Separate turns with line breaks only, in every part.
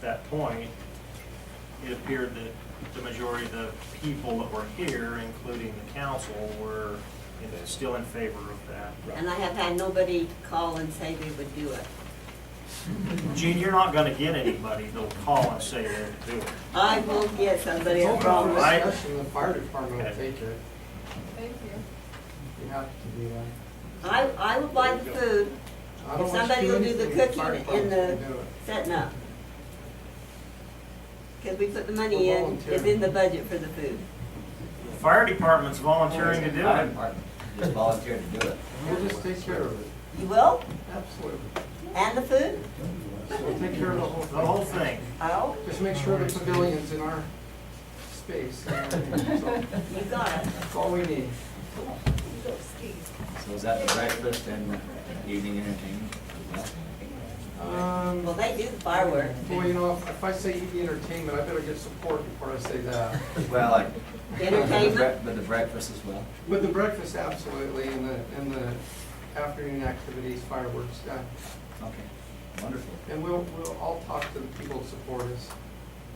that point, it appeared that the majority of the people that were here, including the council, were you know, still in favor of that.
And I have had nobody call and say they would do it.
Gene, you're not gonna get anybody that'll call and say they'll do it.
I will get somebody
It's
a
open for
problem.
Right.
discussion, the fire department will
Okay.
take it,
Thank you.
you have to do that.
I, I will buy the food,
I don't
If
want you
somebody will do the
anything, the
cooking
fire
in
department
the-
can do it.
setting up. Because we put the money
We're
in, it's in
volunteering.
the budget for the food.
The fire department's volunteering to do
Fire
it.
department Just volunteered to do it.
We'll just take care of it,
You will?
absolutely.
And the food?
We'll take care of the
The whole
whole thing.
thing.
Oh,
Just make sure the pavilion's in our space, and everything. So,
you got it.
that's all we need.
Go skis.
So is that the breakfast and evening entertainment?
Um,
Well, they do the fireworks.
Well, you know, if if I say EV entertainment, I better get support before I say that.
Well, like.
Entertainment?
But the breakfast as well.
But the breakfast, absolutely, and the, and the afternoon activities, fireworks, yeah.
Okay, wonderful.
And we'll, we'll, I'll talk to the people that support us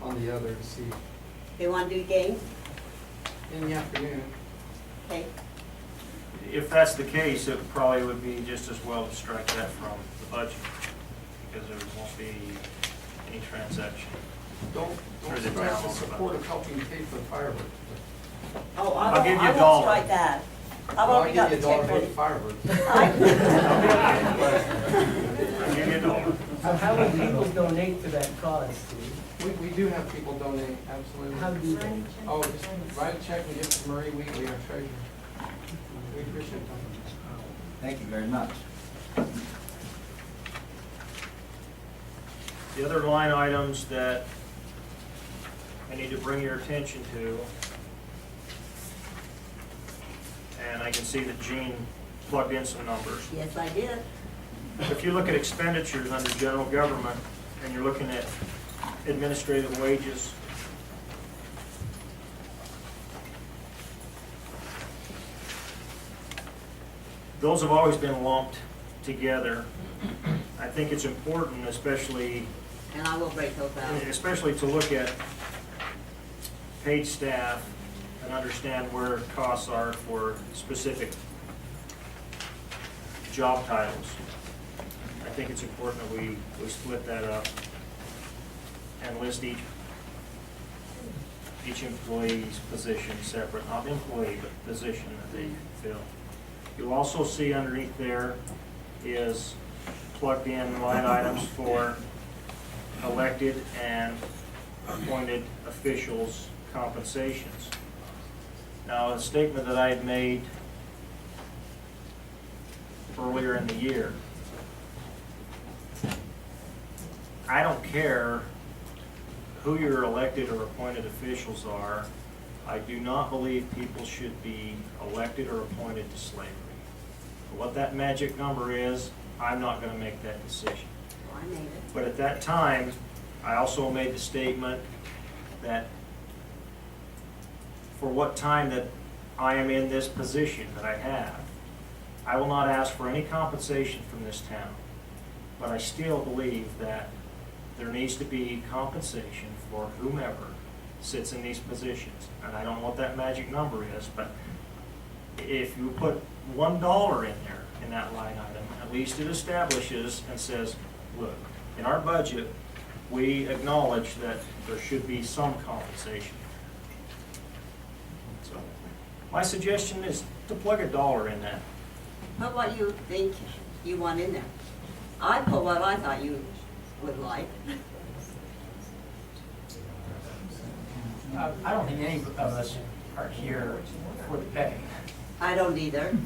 on the other to see,
They want to do games?
in the afternoon.
Okay.
If that's the case, it probably would be just as well to strike that from the budget, because there won't be any transaction.
Don't, don't
Through the
stress the
ground.
support of helping pay for the fireworks.
Oh,
I'll
I won't,
give you a
I won't
dollar.
strike that. I've
Well,
already got the
I'll give you a dollar
check
for the
ready.
fireworks.
I'll give you a dollar.
So how will people donate to that cause, Steve?
We, we do have people donate, absolutely.
How do they?
Oh, just write a check and give it to Marie Wheatley, our treasurer. We appreciate that.
Thank you very much.
The other line items that I need to bring your attention to, and I can see that Gene plugged in some numbers.
Yes, I did.
If you look at expenditures under general government, and you're looking at administrative wages, those have always been lumped together. I think it's important, especially
And I will break those out.
especially to look at paid staff and understand where costs are for specific job titles. I think it's important that we, we split that up and list each, each employee's position separate, not employee, but position that they fill. You'll also see underneath there is plugged in line items for elected and appointed officials' compensations. Now, a statement that I had made earlier in the year, I don't care who your elected or appointed officials are, I do not believe people should be elected or appointed to slavery. What that magic number is, I'm not going to make that decision.
Well, Oh, I made it.
But at that time, I also made the statement that for what time that I am in this position that I have, I will not ask for any compensation from this town. But I still believe that there needs to be compensation for whomever sits in these positions. And I don't know what that magic number is, but if you put one dollar in there, in that line item, at least it establishes and says, look, in our budget, we acknowledge that there should be some compensation. So, my suggestion is to plug a dollar in that.
What about you think you want in there? I put what I thought you would like.
Uh, I don't think any of us are here for the pay.
I don't either,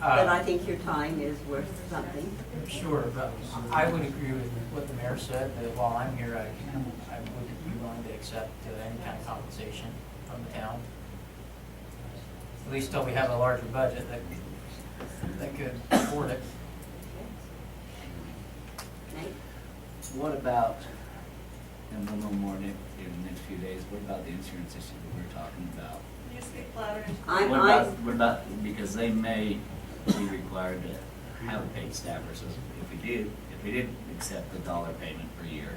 but I
Uh,
think your time is worth something.
Sure, but I would agree with what the mayor said, that while I'm here, I I wouldn't be willing to accept uh, any kind of compensation from the town. At least till we have a larger budget that, that could afford it.
Okay?
What about, and one little more in, in the next few days, what about the insurance issue that we were talking about?
You speak louder.
I'm,
What about,
I'm,
what about, because they may be required to have a paid staff versus if we do, if we did accept the dollar payment per year,